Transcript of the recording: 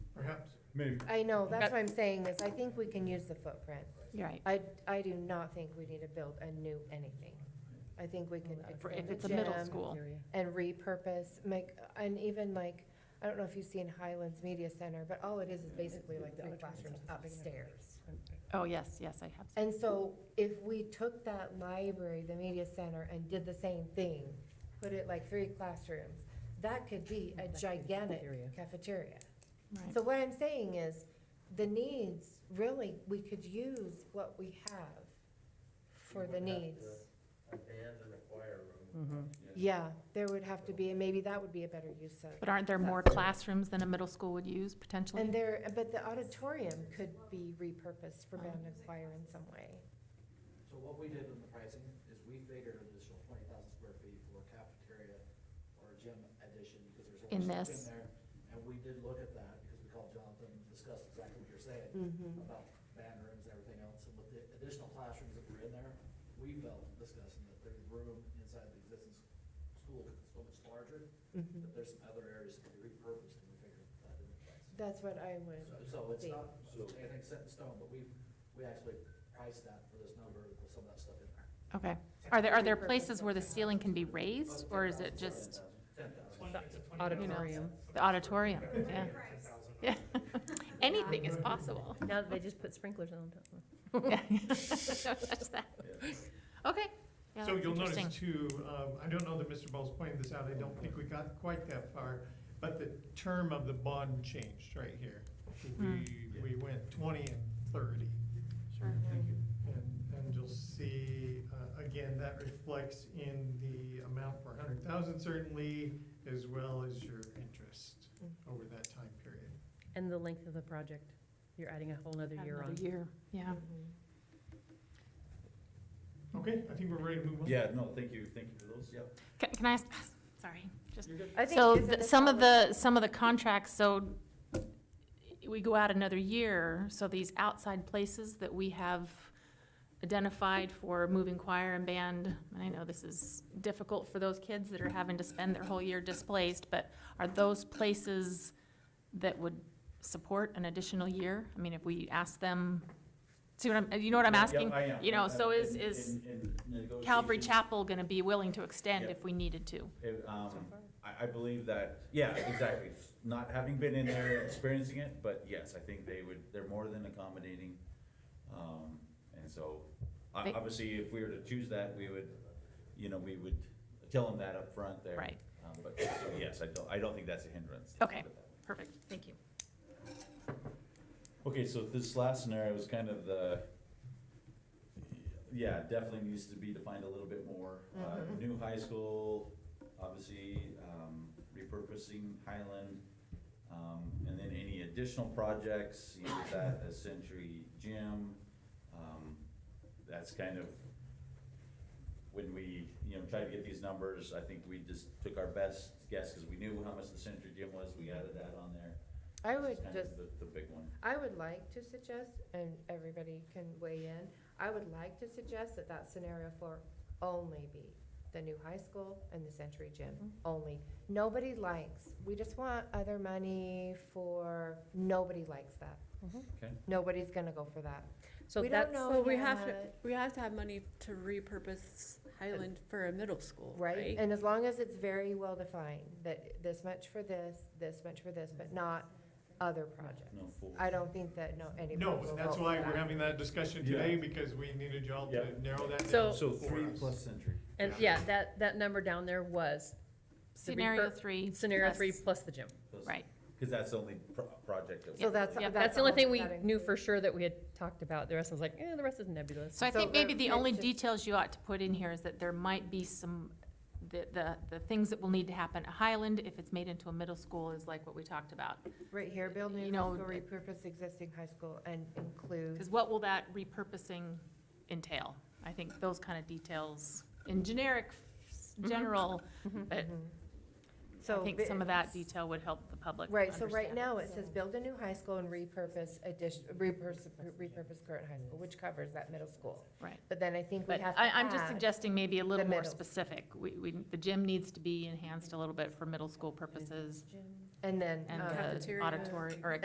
mean, I know, that's But- what I'm saying, is I think we can use the footprint. Right. I, I do not think we need to build a new anything. I think we can For- extend If the it's a middle gym school. And repurpose, make, and even like, I don't know if you've seen Highlands Media Center, but all it is is basically like three classrooms upstairs. Oh, yes, yes, I have. And so if we took that library, the media center, and did the same thing, put it like three classrooms, that could be a gigantic cafeteria. Right. So what I'm saying is, the needs, really, we could use what we have for the needs. Hmm. Mm-hmm. Yeah, there would have to be, and maybe that would be a better use of. But aren't there more classrooms than a middle school would use potentially? And there, but the auditorium could be repurposed for band and choir in some way. So what we did in the pricing is we figured an additional twenty thousand square feet for cafeteria or gym addition, because there's In only this. stuff in there. And we did look at that, because we called Jonathan, and discussed exactly what you're saying Mhm. about band rooms and everything else, and with the additional classrooms that were in there, we felt discussing that there's room inside the existing s- school that's so much larger, Mhm. that there's some other areas that could be repurposed, and we figured that in the price. That's what I would, So- So it's Thing. not anything set in stone, but we, we actually priced that for this number with some of that stuff in there. Okay. Are there, are there places where the ceiling can be raised, or is it just Auditorium. the auditorium? Yeah. Yeah. Anything is possible. Now that they just put sprinklers on top. Yeah. Don't touch that. Okay. Yeah, So that's you'll notice interesting. too, um, I don't know that Mr. Ball's pointed this out, I don't think we got quite that far, but the term of the bond changed right here. We, we went twenty and thirty. Sure. And, and you'll see, uh, again, that reflects in the amount per hundred thousand certainly, as well as your interest Hmm. over that time period. And the length of the project, you're adding a whole nother year on. Another year, yeah. Mm-hmm. Okay, I think we're ready to move on. Yeah, no, thank you, thank you for those. Yep. Can, can I ask, sorry, just I think So isn't th- this some of all- the, some of the contracts, so we go out another year, so these outside places that we have identified for moving choir and band, and I know this is difficult for those kids that are having to spend their whole year displaced, but are those places that would support an additional year? I mean, if we ask them, see what I'm, you know what I'm Yeah, asking? yeah, I am. you know, so Uh, is- in- is in- in Calvary negotiations, Chapel gonna be willing to extend Yeah. if we needed to? it, um, I, I believe that, yeah, exactly, not having been in there and experiencing it, but yes, I think they would, they're more than accommodating. Um, and so, o- They- obviously, if we were to choose that, we would, you know, we would tell them that up front there. Right. Um, but, so, yes, I don't, I don't think that's a hindrance. Okay. Perfect, thank you. Okay, so this last scenario is kind of the, yeah, definitely needs to be defined a little bit more. Uh, new high school, obviously, um, repurposing Highland, um, and then any additional projects, you know, is that a Century Gym? Um, that's kind of, when we, you know, tried to get these numbers, I think we just took our best guess, cause we knew how much the Century Gym was, we added that on there. I That's would kind of just The, the big one. I would like to suggest, and everybody can weigh in, I would like to suggest that that scenario four only be the new high school and the Century Gym, only. Nobody likes, we just want other money for, nobody likes that. Okay. Nobody's gonna go for that. So We that's, don't know. Well, we yet have to, what- we have to have money to repurpose Highland for a middle school, Right, right? and as long as it's very well defined, that this much for this, this much for this, but not other projects. No, full. I don't think that, no, anybody will No, and vote for that's why we're that. having that discussion Yeah. today, because we needed y'all Yeah. to narrow that So- down. So for three us. plus century. And yeah, that, that number down there was the Scenario repur- three. scenario plus- three plus the gym. plus- Right. Cause that's the only pro- project that. So that's. Yeah, That's the only all thing we that knew includes. for sure that we had talked about. The rest was like, eh, the rest is nebulous. So I So think maybe there- the only it's just- details you ought to put in here is that there might be some, the, the, the things that will need to happen at Highland if it's made into a middle school is like what we talked about. Right here, build new you high know, school, it- repurpose existing high school and include, Because what will that repurposing entail? I think those kind of details in generic, general, but I Mm-hmm. so. think bi- some of that detail would help the public Right, so right understand it. now it says build a new high school and repurpose addition, repurpose, repurpose current high school, which covers that middle school. Right. But then I think we But have to I, I'm just add- suggesting maybe a little the more middle. specific. We, we, the gym needs to be enhanced a little bit for middle school purposes And then. and um, the Cafeteria. auditorium, or